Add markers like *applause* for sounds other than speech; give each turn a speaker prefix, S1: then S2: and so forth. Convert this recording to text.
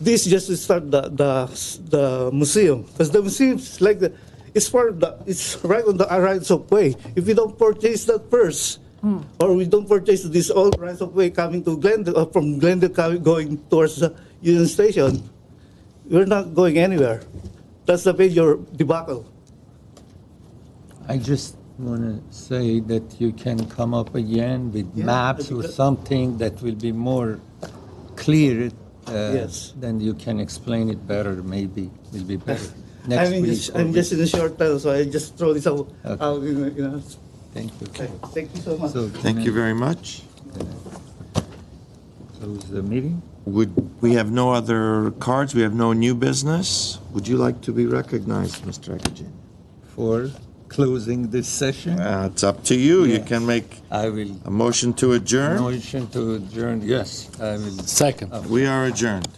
S1: this just to start the the the museum because the museum is like the it's part of the it's right on the rights of way. If we don't purchase that first, or we don't purchase this all rights of way coming to Glendale or from Glendale coming, going towards the Union Station, we're not going anywhere. That's the major debacle.
S2: I just want to say that you can come up again with
S1: Yeah,
S2: maps
S1: that'd be
S2: or
S1: good.
S2: something that will be more clear. Uh,
S1: Yes.
S2: Then you can explain it better, maybe. It'll be better.
S1: *laughs* I
S2: Next
S1: mean,
S2: week.
S1: just-
S2: or
S1: I'm just
S2: week.
S1: in a short time, so I just throw this out.
S2: Okay.
S1: out in a- in a-
S2: Thank you.
S1: Thank you so much.
S2: So can
S3: Thank
S2: I
S3: you very much.
S2: Close the meeting?
S3: Would, we have no other cards, we have no new business. Would you like to be recognized, Mr. Akagin?
S2: For closing this session?
S3: Uh, It's up to you. You
S2: Yeah.
S3: can make
S2: I will,
S3: a motion to adjourn.
S2: motion to adjourn, yes, I will.
S4: Second.
S3: We are adjourned.